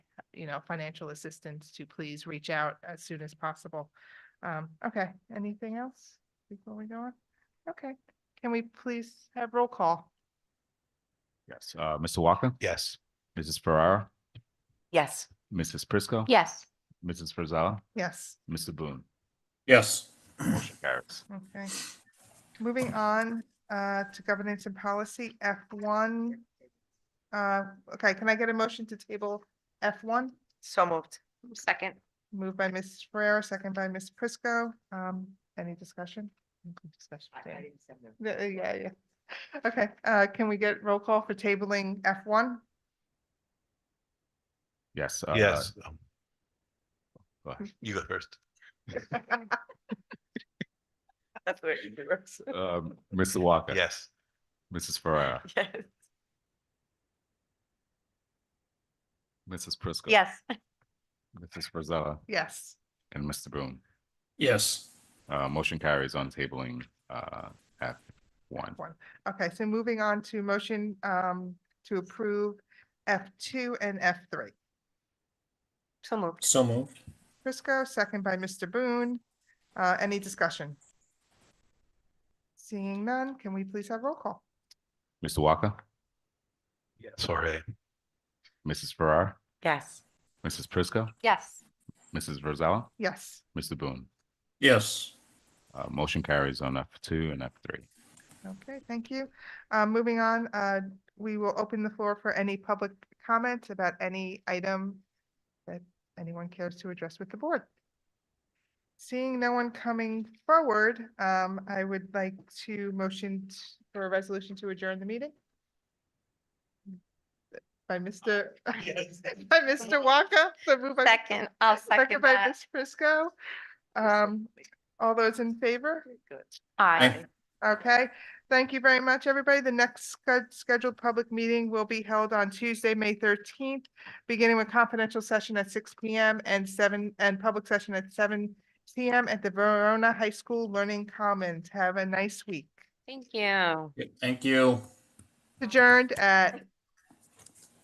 you know, financial assistance to please reach out as soon as possible. Um, okay, anything else before we go on? Okay, can we please have roll call? Yes, uh, Mr. Walker? Yes. Mrs. Ferrara? Yes. Mrs. Prisco? Yes. Mrs. Frizella? Yes, Mr. Boone? Yes. Motion carries. okay. Moving on, uh, to governance and policy, F one. Uh, okay, can I get a motion to table F one? So moved. Second. Moved by Ms. Ferrer, second by Ms. Prisco. Um, any discussion? Discussion, Dan. Yeah, uh, yeah, yeah. Okay, uh, can we get roll call for tabling F one? Yes. uh, Yes. Um, go ahead. You go first. That's where it works. Um, Mr. Walker? Yes. Mrs. Ferrara? Yes. Mrs. Prisco? Yes. Mrs. Frizella? Yes, And Mr. Boone? Yes. Uh, motion carries on tabling, uh, F one. one. Okay, so moving on to motion, um, to approve F two and F three. So moved. So moved. Prisco, second by Mr. Boone. Uh, any discussion? Seeing none, can we please have roll call? Mr. Walker? Yes. Sorry. Mrs. Ferrara? Yes. Mrs. Prisco? Yes. Mrs. Frizella? Yes, Mr. Boone? Yes. Uh, motion carries on F two and F three. okay, thank you. Uh, moving on, uh, we will open the floor for any public comment about any item that anyone cares to address with the board. Seeing no one coming forward, um, I would like to motion t- for a resolution to adjourn the meeting. By Mr. Yes. by Mr. Waka, so moved by. Mr. Second, I'll second by that. Ms. Prisco. Um, all those in favor? Aye. Okay, thank you very much, everybody. The next sched- scheduled public meeting will be held on Tuesday, May thirteenth, beginning with confidential session at six P M and seven, and public session at seven P M at the Verona High School Learning Commons. Have a nice week. Thank you. Thank you. Adjourned at